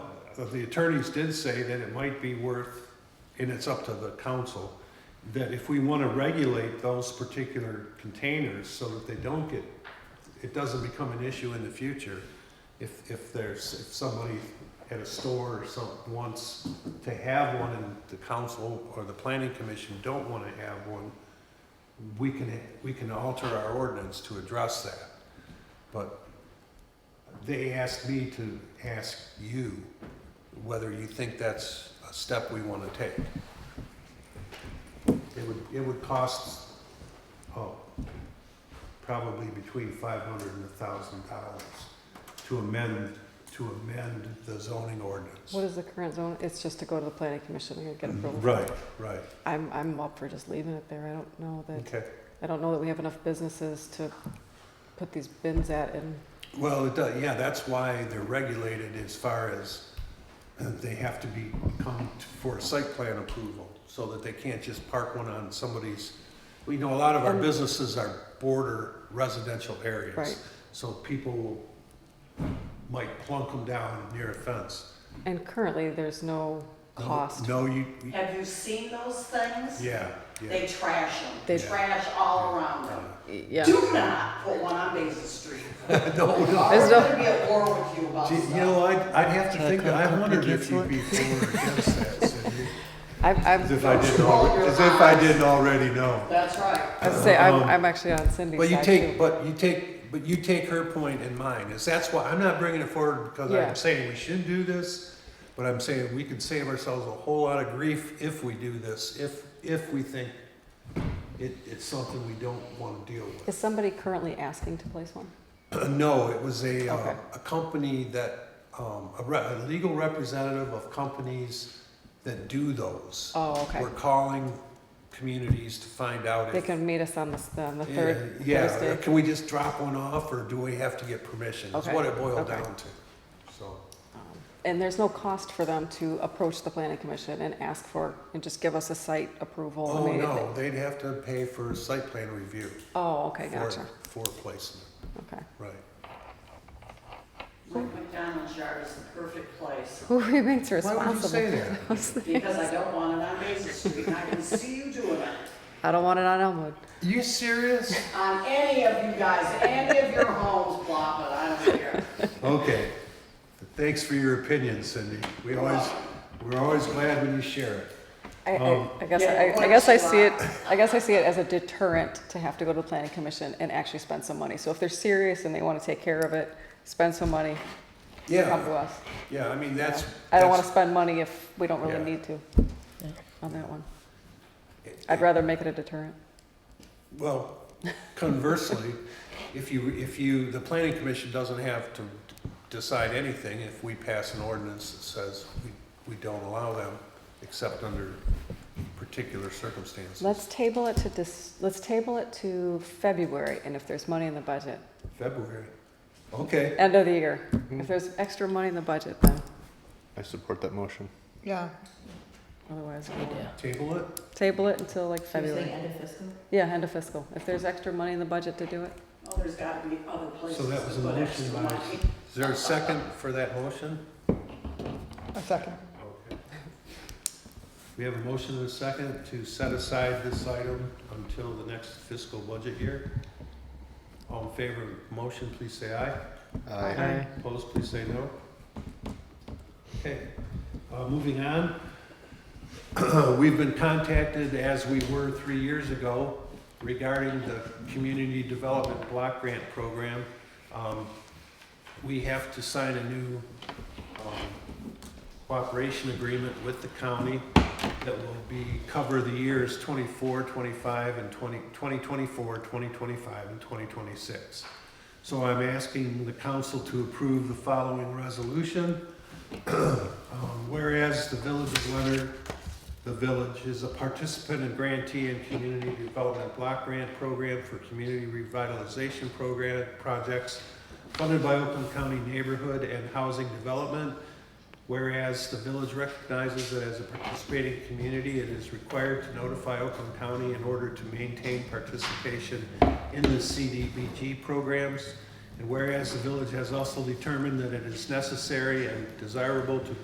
uh, the attorneys did say that it might be worth, and it's up to the council, that if we want to regulate those particular containers so that they don't get, it doesn't become an issue in the future, if, if there's, if somebody at a store or some, wants to have one and the council or the planning commission don't want to have one, we can, we can alter our ordinance to address that. But they asked me to ask you whether you think that's a step we want to take. It would, it would cost, oh, probably between five hundred and a thousand dollars to amend, to amend the zoning ordinance. What is the current zone? It's just to go to the planning commission and get approval. Mm-hmm. Right, right, I'm, I'm up for just leaving it there. I don't know that, okay. I don't know that we have enough businesses to put these bins at and, Well, it does, yeah, that's why they're regulated as far as uh, they have to be, come t- for a site plan approval, so that they can't just park one on somebody's, we know a lot of our And- businesses are border residential areas. Right. So people will- might plunk them down near a fence. and currently there's no No- cost. No, you, you- Have you seen those things? yeah, yeah. They trash them. They- They trash all around them. Yeah. Do not put one on Basin Street. No, no. I'm There's no- gonna be at war with you about Gee, You know, stuff. I'd, I'd have to Can I think, come- I come wondered pick you if you'd up? be for or against that, Cindy. I'm, I'm, As if I didn't, Roll alre- your as if I eyes. didn't already know. That's right. I say, I'm, Um, I'm actually on Cindy's But you side take, too. but you take, but you take her point and mine, is that's why, I'm not bringing it forward because Yeah. I'm saying we should do this, but I'm saying we could save ourselves a whole lot of grief if we do this, if, if we think it, it's something we don't want to deal with. Is somebody currently asking to place one? No, it was a, uh, Okay. a company that, um, a re- a legal representative of companies that do those. Oh, okay. We're calling communities to find out They if can meet us on the, s- on the Yeah, third Yeah, Uh, Thursday. can we just drop one off, or do we have to get permission? Is Okay, what it boiled okay. down to, so. And there's no cost for them to approach the planning commission and ask for, and just give us a site approval Oh, immediately? no, they'd have to pay for site plan review Oh, okay, for, gotcha, for placement, okay. right. Like McDonald's yard is the perfect place Who remains responsible? Why would you say that? because I don't want it on Basin Street and I can see you doing it. I don't want it on Elmwood. You serious? On any of you guys, any of your homes, blah, but I don't care. Okay, thanks for your opinion, Cindy. We always, we're always glad when you share it. I, I, Um, I guess, Yeah, I, I what guess I you see it, want. I guess I see it as a deterrent to have to go to the planning commission and actually spend some money. So if they're serious and they wanna take care of it, spend some money, come to Yeah, us. yeah, I mean, that's. I don't wanna that's- spend money if we don't Yeah. really need to on that one. I'd rather make it a deterrent. Well, conversely, if you, if you, the planning commission doesn't have to decide anything if we pass an ordinance that says we, we don't allow them except under particular circumstances. Let's table it to dis, let's table it to February and if there's money in the budget, February, okay. end of the year. Mm-hmm. If there's extra money in the budget, then I support that motion. Yeah, otherwise we'll We do. Table it? table it until like You're saying February. end of fiscal? Yeah, end of fiscal. If there's extra money in the budget to do it. Oh, there's gotta be other places So that was a to put extra motion by, money. is there a second for that motion? a second. Okay. We have a motion and a second to set aside this item until the next fiscal budget year. All in favor of the motion, please say aye. Aye. Opposed, please say no. Okay, uh, moving on. We've been contacted, as we were three years ago, regarding the Community Development Block Grant Program. Um, We have to sign a new um, cooperation agreement with the county that will be, cover the years 24, 25, and 20 2024, 2025, and 2026. So I'm asking the council to approve the following resolution. Um, Whereas the Village of Leonard, the village is a participant and grantee in Community Development Block Grant Program for Community Revitalization Program projects funded by Oakland County Neighborhood and Housing Development. Whereas the village recognizes that as a participating community, it is required to notify Oakland County in order to maintain participation in the CDBG programs. And whereas the village has also determined that it is necessary and desirable to